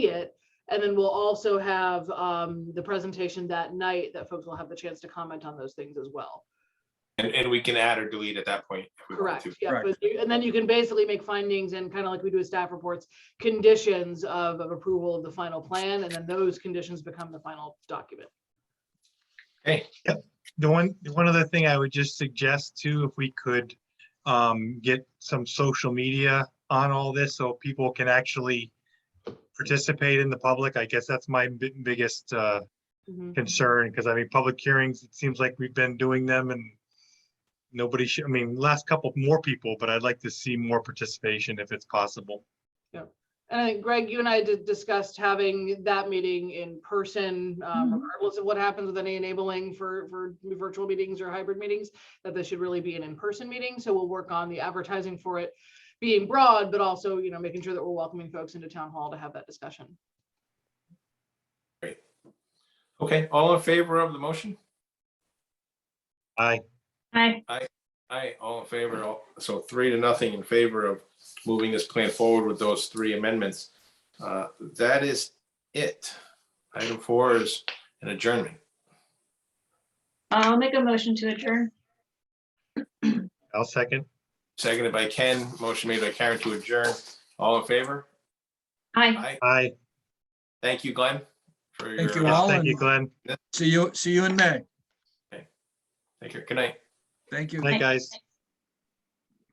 it. And then we'll also have um, the presentation that night that folks will have the chance to comment on those things as well. And, and we can add or delete at that point. if we want Correct, to. yeah, Correct. but you- and then you can basically make findings and kind of like we do with staff reports, conditions of, of approval of the final plan, and then those conditions become the final document. The one, the one other thing I would just suggest too, if we could um, get some social media on all this so people can actually participate in the public. I guess that's my bi- biggest uh, Mhm. concern, because I mean, public hearings, it seems like we've been doing them and nobody should, I mean, last couple more people, but I'd like to see more participation if it's possible. And I think Greg, you and I did discussed having that meeting in person, um, regardless of what happens with any enabling for, for virtual meetings or hybrid meetings, that this should really be an in-person meeting. So we'll work on the advertising for it being broad, but also, you know, making sure that we're welcoming folks into town hall to have that discussion. Okay, all in favor of the motion? Aye. Aye. Aye, all in favor. all- So three to nothing in favor of moving this plan forward with those three amendments. Uh, That is it. Item four is an adjournment. I'll make a motion to adjourn. I'll second. Seconded by Ken, motion made by Karen to adjourn. All in favor? Aye. Aye. Aye. Thank you, Glenn. for your- Thank you Yes, all. thank you, and Glenn. See you, see you in May. Take care. Good night. Thank you. Thank guys.